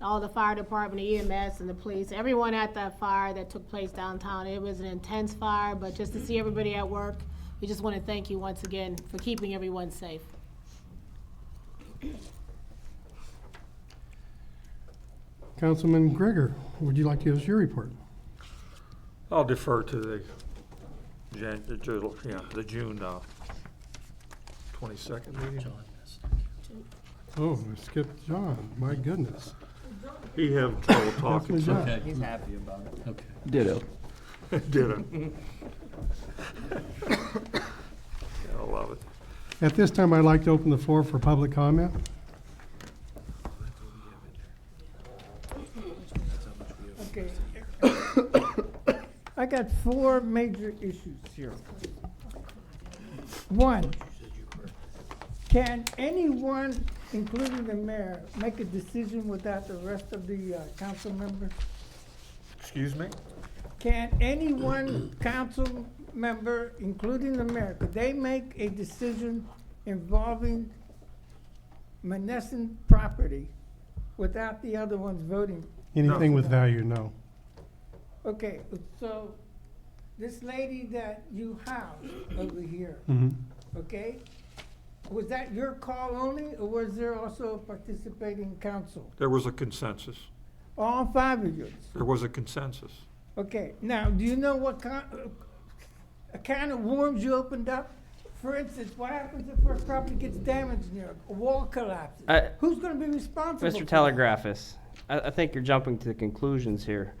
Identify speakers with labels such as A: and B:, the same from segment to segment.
A: all the fire department, the EMS and the police, everyone at that fire that took place downtown. It was an intense fire, but just to see everybody at work, we just want to thank you once again for keeping everyone safe.
B: Councilman Gregor, would you like to give us your report?
C: I'll defer to the Jan, the Ju- yeah, the June uh, twenty-second meeting.
B: Oh, I skipped John, my goodness.
C: He have trouble talking,
B: Councilman
C: so
B: John,
D: He's happy about it. Okay.
E: Ditto.
C: didn't. I love it.
B: At this time, I'd like to open the floor for public comment.
F: Okay. I got four major issues here. One, can anyone, including the mayor, make a decision without the rest of the uh, council members?
C: Excuse me?
F: Can any one council member, including the mayor, could they make a decision involving Menneson property without the other ones voting
B: Anything with value, no.
F: Okay, so this lady that you housed over here,
B: Mhm.
F: okay? Was that your call only, or was there also a participating council?
C: There was a consensus.
F: All five of yours?
C: There was a consensus.
F: Okay, now, do you know what kind, a can of worms you opened up? For instance, what happens if a property gets damaged near, a wall collapses?
E: I-
F: Who's gonna be responsible? for
E: Mr.
F: that?
E: Telegraphus, Uh, I, I think you're jumping to conclusions here.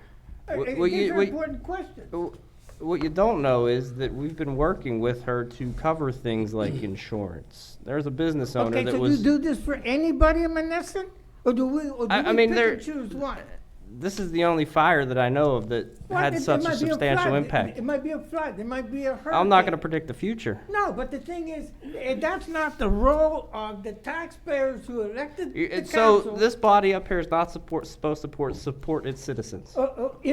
F: Uh,
E: Wh-
F: uh,
E: will
F: These
E: you-
F: are
E: will you-
F: important questions.
E: Wh- What you don't know is that we've been working with her to cover things like insurance. There's a business owner
F: Okay,
E: that
F: so you
E: was,
F: do this for anybody in Menneson? Or do we, or do
E: I- I
F: we
E: mean,
F: pick
E: there-
F: and choose one?
E: this is the only fire that I know of that
F: Well, it-
E: had
F: it
E: such a
F: might be
E: substantial
F: flood. It-
E: impact.
F: It might be a flood, it might be a hurricane.
E: I'm not gonna predict the future.
F: No, but the thing is, eh, that's not the role of the taxpayers who elected
E: You-
F: the
E: and
F: council.
E: So this body up here is not support, supposed to support, support its citizens.
F: Uh, uh,
E: That's what you're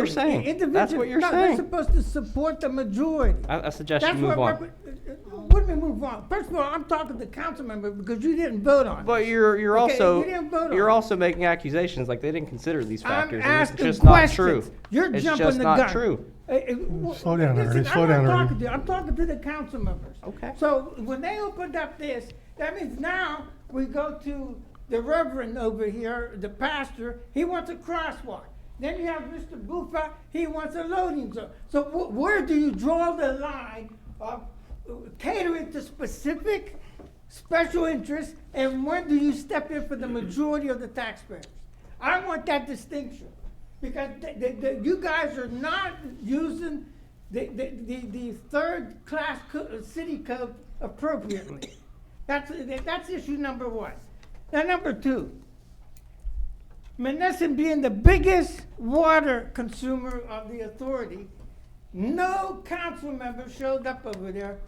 F: individually,
E: saying.
F: eh,
E: That's
F: individually.
E: what you're
F: No, they're
E: saying.
F: supposed to support the majority.
E: I, I suggest you
F: That's what
E: move on.
F: repre- eh, eh, What do we move on? First of all, I'm talking to council member because you didn't vote on it.
E: But you're, you're
F: Okay,
E: also,
F: we didn't vote on
E: you're
F: it.
E: also making accusations like they didn't consider these
F: I'm
E: factors. and it's
F: asking
E: just not true.
F: questions. You're
E: It's
F: jumping
E: just
F: the
E: not
F: gun.
E: true.
F: Eh, eh, w-
B: Slow down,
F: listen,
B: Ernie, slow down,
F: I'm not
B: Ernie.
F: talking to you. I'm talking to the council members.
E: Okay.
F: So when they opened up this, that means now we go to the reverend over here, the pastor, he wants a crosswalk. Then you have Mr. Bufa, he wants a loading zone. So wh- where do you draw the line of catering to specific, special interests, and when do you step in for the majority of the taxpayers? I want that distinction, because th- th- th- you guys are not using the, the, the, the third-class co- uh, city code appropriately. That's, that's issue number one. Now, number two, Menneson being the biggest water consumer of the authority, no council member showed up over there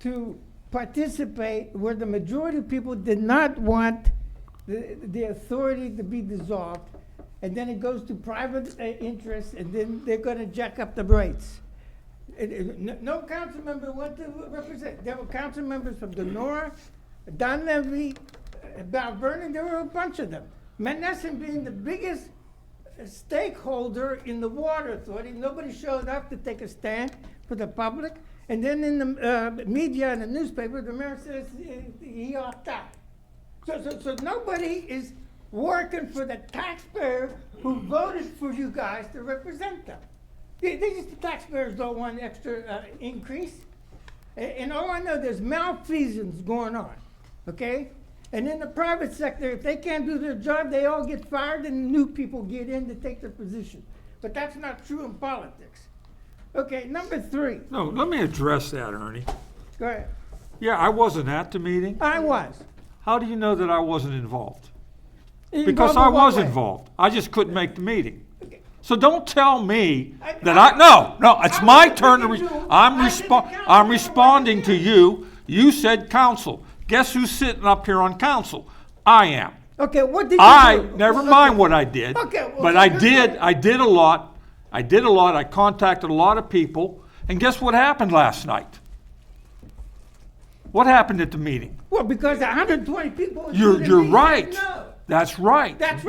F: to participate where the majority of people did not want the, the authority to be dissolved. And then it goes to private uh, interests and then they're gonna jack up the rates. It- it- No no council member went to represent, there were council members from Denora, Dunleavy, uh, Balvernon, there were a bunch of them. Menneson being the biggest stakeholder in the water authority, nobody showed up to take a stand for the public. And then in the uh, media and the newspaper, the mayor says uh, he opt out. So, so, so nobody is working for the taxpayer who voted for you guys to represent them. They, they just, the taxpayers don't want extra uh, increase. A- And all I know, there's malfeasance going on, okay? And in the private sector, if they can't do their job, they all get fired and new people get in to take their position. But that's not true in politics. Okay, number three,
C: No, let me address that, Ernie.
F: go ahead.
C: Yeah, I wasn't at the meeting.
F: I was.
C: How do you know that I wasn't involved?
F: Involved
C: Because
F: in
C: I
F: what
C: was
F: way?
C: involved. I just couldn't make the meeting.
F: Okay.
C: So don't tell me
F: I-
C: that
F: I-
C: I, no, no, it's
F: I
C: my
F: didn't
C: turn to,
F: think
C: re-
F: you-
C: I'm
F: I didn't
C: respon
F: count.
C: I'm responding to you. You said council. Guess who's sitting up here on council? I am.
F: Okay, what did you do?
C: I, never
F: Okay.
C: mind what I did.
F: Okay, well,
C: But
F: so
C: I
F: you're
C: did,
F: saying-
C: I did a lot. I did a lot. I contacted a lot of people. And guess what happened last night? What happened at the meeting?
F: Well, because 120 people.
C: You're,
F: including
C: you're
F: me, said
C: right.
F: No.
C: That's right.
F: That's